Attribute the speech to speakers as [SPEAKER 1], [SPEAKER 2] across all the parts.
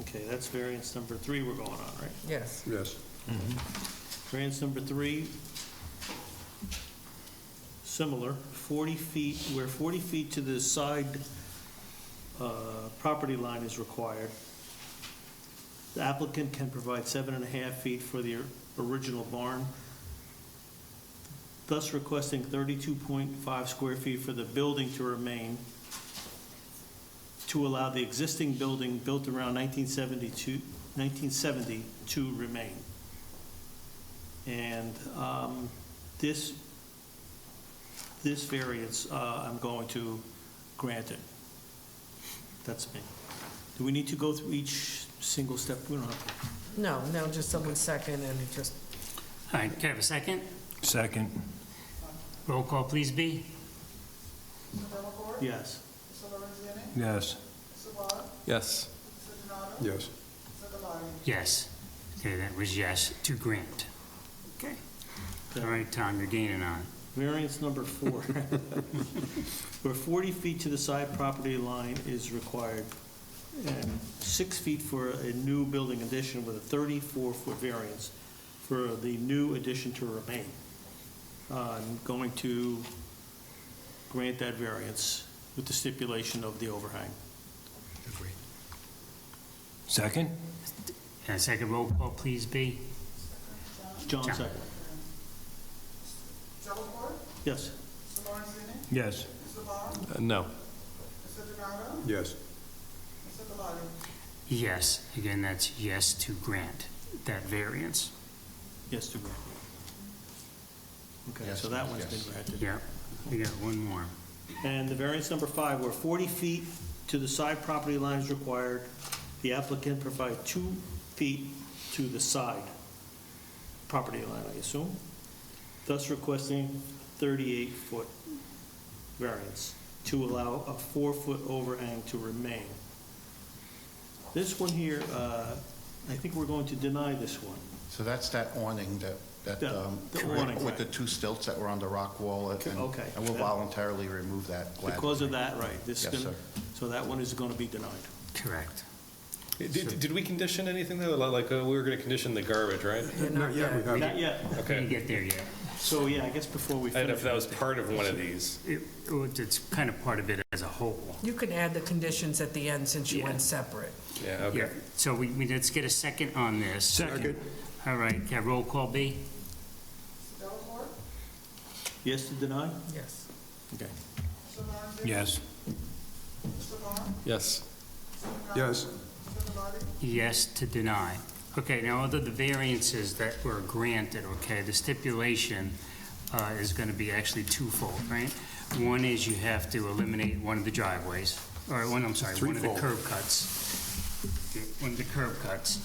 [SPEAKER 1] Okay, that's variance number three we're going on, right?
[SPEAKER 2] Yes.
[SPEAKER 3] Yes.
[SPEAKER 1] Variance number three, similar, 40 feet, where 40 feet to the side uh, property line is required. The applicant can provide seven and a half feet for the original barn, thus requesting 32.5 square feet for the building to remain, to allow the existing building built around 1972, 1970 to remain. And um, this, this variance, uh, I'm going to grant it. That's me. Do we need to go through each single step? We don't have to.
[SPEAKER 2] No, no, just someone second and it just,
[SPEAKER 4] All right, can I have a second?
[SPEAKER 5] Second.
[SPEAKER 4] Roll call, please, B.
[SPEAKER 1] Yes.
[SPEAKER 5] Yes.
[SPEAKER 6] Yes.
[SPEAKER 3] Yes.
[SPEAKER 4] Yes. Okay, that was yes to grant. Okay. All right, Tom, you're gaining on. it.
[SPEAKER 1] Variance number four. Where 40 feet to the side property line is required, and six feet for a new building addition with a 34-foot variance for the new addition to remain. I'm going to grant that variance with the stipulation of the overhang.
[SPEAKER 5] Second?
[SPEAKER 4] And a second roll call, please, B.
[SPEAKER 1] John,
[SPEAKER 4] John.
[SPEAKER 1] second. Yes.
[SPEAKER 5] Yes.
[SPEAKER 6] Uh, No.
[SPEAKER 3] Yes.
[SPEAKER 4] Yes. Again, that's yes to grant that variance.
[SPEAKER 1] Yes, to grant. Okay, so that one's been granted.
[SPEAKER 4] Yep. We got one more.
[SPEAKER 1] And the variance number five, where 40 feet to the side property line is required, the applicant provide two feet to the side property line, I assume, thus requesting 38-foot variance to allow a four-foot overhang to remain. This one here, uh, I think we're going to deny this one.
[SPEAKER 7] So that's that awning that, that,
[SPEAKER 1] Yeah,
[SPEAKER 7] um,
[SPEAKER 1] the awning,
[SPEAKER 7] with the
[SPEAKER 1] right.
[SPEAKER 7] two stilts that were on the rock wall. and-
[SPEAKER 1] Okay.
[SPEAKER 7] And we'll voluntarily remove that gladly.
[SPEAKER 1] Because of that, right? this
[SPEAKER 7] Yes,
[SPEAKER 1] gonna-
[SPEAKER 7] sir.
[SPEAKER 1] So that one is going to be denied.
[SPEAKER 4] Correct.
[SPEAKER 6] Did, did we condition anything though? Li- Like, uh, we were gonna condition the garbage, right?
[SPEAKER 2] you're not
[SPEAKER 3] Yeah, we
[SPEAKER 2] yet.
[SPEAKER 3] have,
[SPEAKER 1] Not yet.
[SPEAKER 4] We didn't
[SPEAKER 6] Okay.
[SPEAKER 4] get there yet.
[SPEAKER 1] So, yeah, I guess before we
[SPEAKER 6] I don't know
[SPEAKER 1] finish.
[SPEAKER 6] if that was part of one of these.
[SPEAKER 4] It- It's kind of part of it as a whole.
[SPEAKER 2] You can add the conditions at the end since you went
[SPEAKER 4] Yeah.
[SPEAKER 2] separate.
[SPEAKER 6] Yeah,
[SPEAKER 4] Yeah,
[SPEAKER 6] okay.
[SPEAKER 4] so we, we, let's get a second on this.
[SPEAKER 5] Second.
[SPEAKER 4] All right, yeah, roll call, B.
[SPEAKER 1] Yes to deny?
[SPEAKER 2] Yes.
[SPEAKER 1] Okay.
[SPEAKER 5] Yes.
[SPEAKER 6] Yes.
[SPEAKER 3] yes.
[SPEAKER 4] Yes to deny. Okay, now, other the variances that were granted, okay, the stipulation uh, is going to be actually twofold, right? One is you have to eliminate one of the driveways, or one, I'm sorry, one of the
[SPEAKER 3] Threefold.
[SPEAKER 4] curb cuts. One of the curb cuts,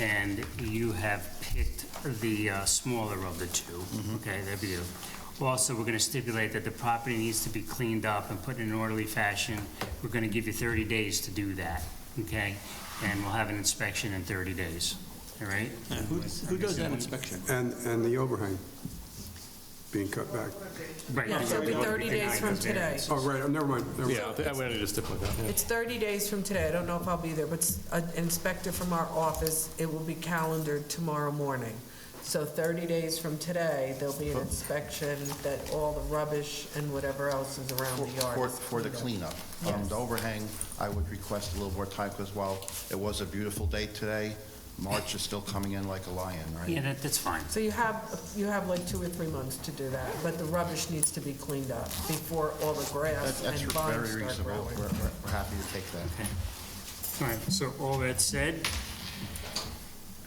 [SPEAKER 4] and you have picked the uh, smaller of the two, okay, that'd be a- Also, we're going to stipulate that the property needs to be cleaned up and put in an orderly fashion. We're going to give you 30 days to do that, okay? And we'll have an inspection in 30 days, all right?
[SPEAKER 1] Who who does that inspection?
[SPEAKER 3] And, and the overhang being cut back.
[SPEAKER 4] Right.
[SPEAKER 2] Yeah, so it'll be 30 days from today.
[SPEAKER 3] Oh, right, oh, never mind, never mind.
[SPEAKER 6] Yeah, I think I wanted to stipulate that. yeah.
[SPEAKER 2] It's 30 days from today. I don't know if I'll be there, but s- an inspector from our office, it will be calendared tomorrow morning. So 30 days from today, there'll be an inspection that all the rubbish and whatever else is around the yard.
[SPEAKER 7] For,
[SPEAKER 2] is
[SPEAKER 7] for the
[SPEAKER 2] cleaned up.
[SPEAKER 7] cleanup. Um, The overhang, I would request a little more time because while it was a beautiful day today, March is still coming in like a lion,
[SPEAKER 4] Yeah,
[SPEAKER 7] right?
[SPEAKER 4] that, that's fine.
[SPEAKER 2] So you have, you have like two or three months to do that, but the rubbish needs to be cleaned up before all the
[SPEAKER 7] That's
[SPEAKER 2] grass
[SPEAKER 7] that's
[SPEAKER 2] and vines
[SPEAKER 7] very
[SPEAKER 2] start
[SPEAKER 7] reasonable.
[SPEAKER 2] growing.
[SPEAKER 7] We're, we're- we're happy to take that.
[SPEAKER 4] Okay. All right, so all that said,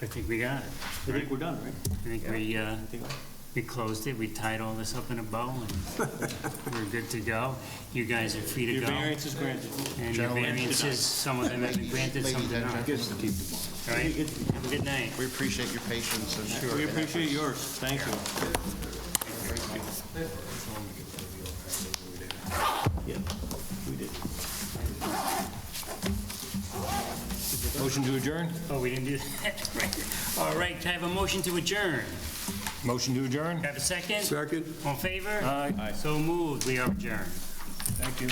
[SPEAKER 4] I think we got it.
[SPEAKER 1] I think we're done, right?
[SPEAKER 4] I think we, uh,
[SPEAKER 1] I think-
[SPEAKER 4] we closed it, we tied all this up in a bow, and we're good to go. You guys are free to
[SPEAKER 1] Your
[SPEAKER 4] go.
[SPEAKER 1] variance is granted.
[SPEAKER 4] And your
[SPEAKER 7] Gentlemen,
[SPEAKER 4] variances, some of them have been granted, some
[SPEAKER 7] Ladies
[SPEAKER 4] did
[SPEAKER 7] and
[SPEAKER 4] not. All
[SPEAKER 7] gentlemen,
[SPEAKER 4] right, have a good night.
[SPEAKER 7] we appreciate your patience and.
[SPEAKER 1] We
[SPEAKER 7] and efforts.
[SPEAKER 1] appreciate yours. Thank you. Yeah, we did.
[SPEAKER 5] Motion to adjourn?
[SPEAKER 4] Oh, we didn't do that, right. All right, can I have a motion to adjourn?
[SPEAKER 5] Motion to adjourn?
[SPEAKER 4] Have a second?
[SPEAKER 3] Second?
[SPEAKER 4] All in favor? Aye. So moved, we are adjourned.
[SPEAKER 5] Thank you.